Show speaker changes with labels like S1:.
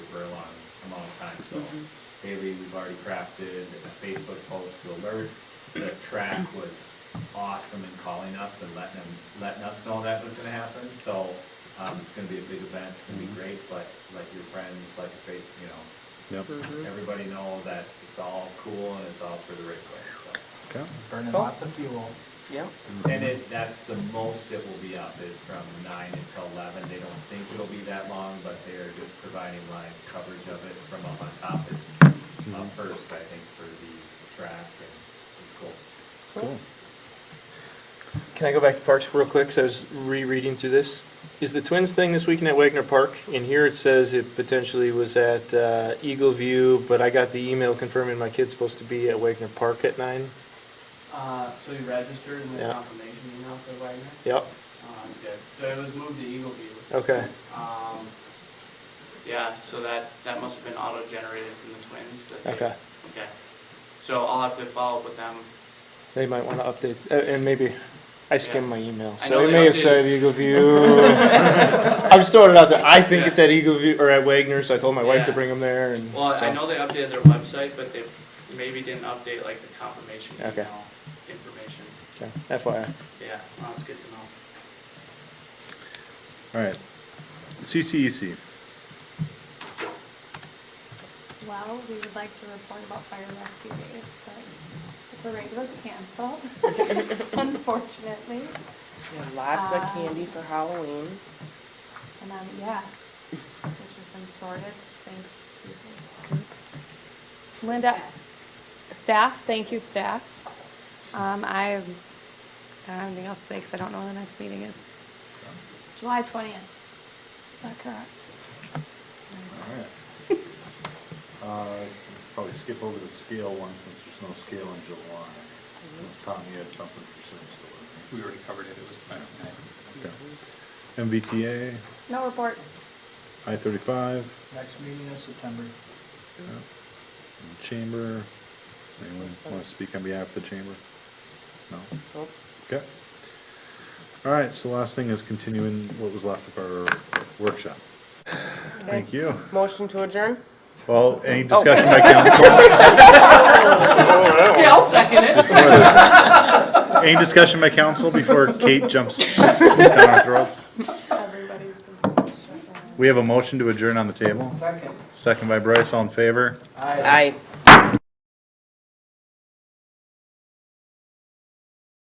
S1: time, so daily, we've already crafted a Facebook post to alert. The track was awesome in calling us and letting them, letting us know that was gonna happen, so, um, it's gonna be a big event, it's gonna be great, but let your friends, let your face, you know,
S2: Yep.
S1: everybody know that it's all cool and it's all for the raceway, so.
S2: Okay.
S3: Burning
S4: Cool.
S3: lots of fuel.
S4: Yeah.
S1: And it, that's the most it will be up, is from nine until eleven, they don't think it'll be that long, but they're just providing live coverage of it from up on top, it's up first, I think, for the track, and it's cool.
S2: Cool.
S5: Can I go back to parks real quick? 'Cause I was rereading through this. Is the Twins thing this weekend at Wagner Park? In here it says it potentially was at uh, Eagle View, but I got the email confirming my kid's supposed to be at Wagner Park at nine.
S6: Uh, so you registered with
S5: Yeah.
S6: confirmation email, so Wagner?
S5: Yep.
S6: Um, good. So it was moved to Eagle View.
S5: Okay.
S6: Um, yeah, so that, that must have been auto-generated from the twins. that they-
S5: Okay. Mm-hmm.
S6: Okay. So I'll have to follow up with them.
S5: They might want to update, uh, and maybe I skimmed my email,
S6: I
S5: so
S6: know
S5: it
S6: they
S5: may have
S6: updated-
S5: said Eagle View. I'm just throwing it out there. I think
S6: Yeah.
S5: it's at Eagle View or at Wagner, so I told my wife to
S6: Yeah.
S5: bring them there. And
S6: Well, I
S5: so-
S6: know they updated their website, but they maybe didn't update like the confirmation
S5: Okay.
S6: email information.
S5: Okay. FYI.
S6: Yeah, well, that's good to know.
S2: All right. E CCEC.
S7: Well, we would like to report about fire rescue days, but the parade was canceled, unfortunately.
S4: So we have Lots of
S7: Ah.
S4: candy for Halloween.
S7: And then, yeah, which has been sorted, thank you. Linda, staff, thank you, staff. Um, I, I don't have anything else to say, because I don't know when the next meeting is. July twentieth, is that correct?
S2: Alright. Uh, Probably skip over the scale one since there's no scale in July. Unless Tom, you had something for Sims to
S3: We already covered it, it was last night.
S2: learn. MVTA,
S7: No report.
S2: I thirty-five,
S3: Next meeting is September.
S2: Chamber. Anyone want to speak on behalf of the Chamber? No?
S4: Nope.
S2: Okay. Alright, so last thing is continuing what was left of our workshop. Thank you.
S4: Motion to adjourn?
S2: Well, any discussion by council?
S4: Okay, I'll second it.
S2: Any discussion by council before Kate jumps down our throats?
S7: Everybody's completely shut down.
S2: We have a motion to adjourn on the table.
S3: Second.
S2: Second by Bryce, all in favor?
S3: Aye.
S4: Aye.